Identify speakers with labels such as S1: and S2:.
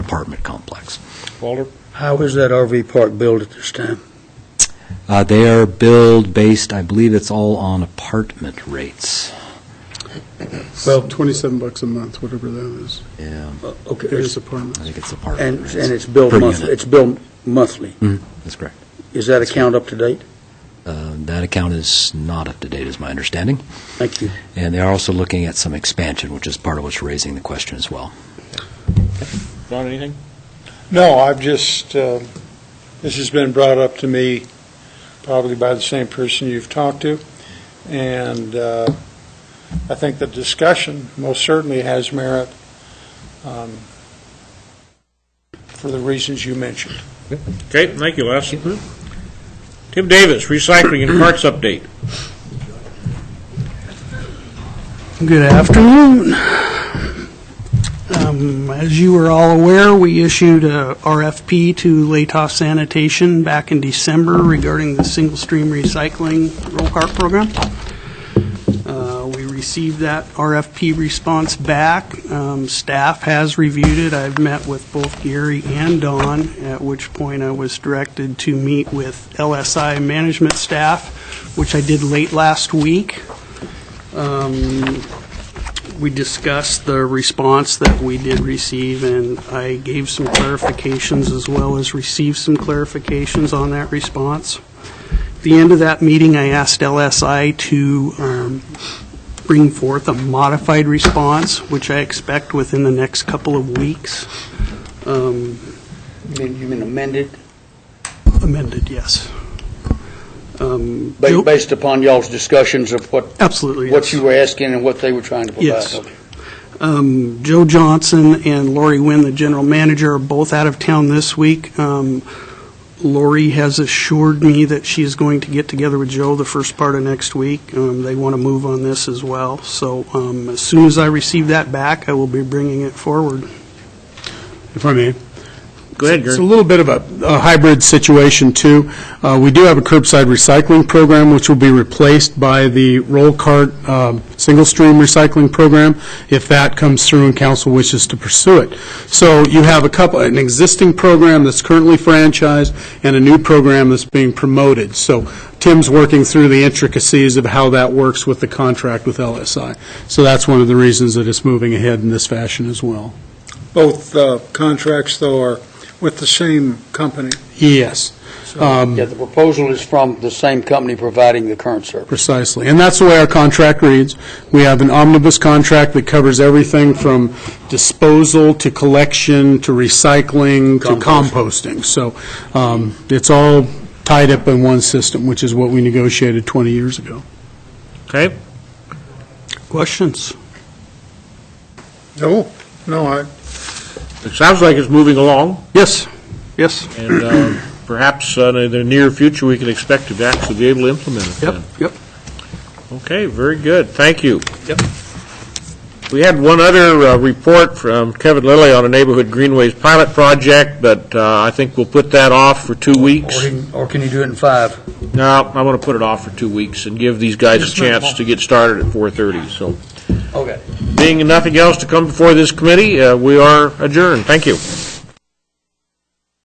S1: apartment complex.
S2: Walter?
S3: How is that RV park billed at this time?
S1: Uh, They are billed based, I believe it's all on apartment rates.
S3: Well-
S4: 27 bucks a month, whatever that is.
S1: Yeah,
S3: Uh, Okay,
S4: It is
S3: it's-
S4: apartments.
S1: I think it's
S3: and,
S1: apartment rates.
S3: and it's billed
S1: Per
S3: monthly,
S1: unit.
S3: it's billed monthly.
S1: That's correct.
S3: Is that account up to date?
S1: Uh, That account is not up to date, is my understanding.
S3: Thank you.
S1: And they are also looking at some expansion, which is part of what's raising the question as well.
S2: John, anything? No, I've just, uh, this has been brought up to me probably by the same person you've talked to, and uh, I think the discussion most certainly has merit um, for the reasons you mentioned.
S5: Okay, thank you, Les. Tim Davis, recycling and parts update.
S6: Good afternoon. Um, As you are all aware, we issued a RFP to Latos Sanitation back in December regarding the single-stream recycling roll cart program. Uh, We received that RFP response back. Um, Staff has reviewed it. I've met with both Gary and Don, at which point I was directed to meet with LSI management staff, which I did late last week. Um, We discussed the response that we did receive, and I gave some clarifications as well as received some clarifications on that response. At the end of that meeting, I asked LSI to um, bring forth a modified response, which I expect within the next couple of weeks. Um,
S3: You mean amended,
S6: Amended, yes. Um, Joe-
S3: based upon y'all's discussions of what,
S6: Absolutely, yes.
S3: what you were asking and what they were trying to provide?
S6: Yes. Um, Joe Johnson and Lori Wynn, the general manager, are both out of town this week. Um, Lori has assured me that she is going to get together with Joe the first part of next week. Um, They want to move on this as well. So um, as soon as I receive that back, I will be bringing it forward.
S4: If I may.
S5: Go ahead,
S4: It's
S5: Gary.
S4: a little bit of a a hybrid situation, too. Uh, We do have a curbside recycling program, which will be replaced by the roll cart um, single-stream recycling program, if that comes through and council wishes to pursue it. So you have a couple, an existing program that's currently franchised, and a new program that's being promoted. So Tim's working through the intricacies of how that works with the contract with LSI. So that's one of the reasons that it's moving ahead in this fashion as well.
S2: Both uh, contracts, though, are with the same company.
S4: Yes. Um,
S3: Yeah, the proposal is from the same company providing the current service.
S4: Precisely. And that's the way our contract reads. We have an omnibus contract that covers everything from disposal to collection to recycling to composting. So um, it's all tied up in one system, which is what we negotiated 20 years ago.
S5: Okay,
S6: Questions?
S2: No, no, I,
S5: it sounds like it's moving along,
S6: Yes. Yes.
S5: and uh, perhaps uh, in the near future, we can expect to actually be able to implement it
S6: Yep,
S5: then.
S6: yep.
S5: Okay, very good, thank you.
S6: Yep.
S5: We had one other uh, report from Kevin Lilly on a neighborhood greenways pilot project, but uh, I think we'll put that off for two
S3: Or
S5: weeks.
S3: he- Or can you do it in five?
S5: No, I want to put it off for two weeks and give these guys a
S3: It's not
S5: chance
S3: long.
S5: to get started at 4:30, so.
S3: Okay.
S5: Being nothing else to come before this committee, uh, we are adjourned. Thank you.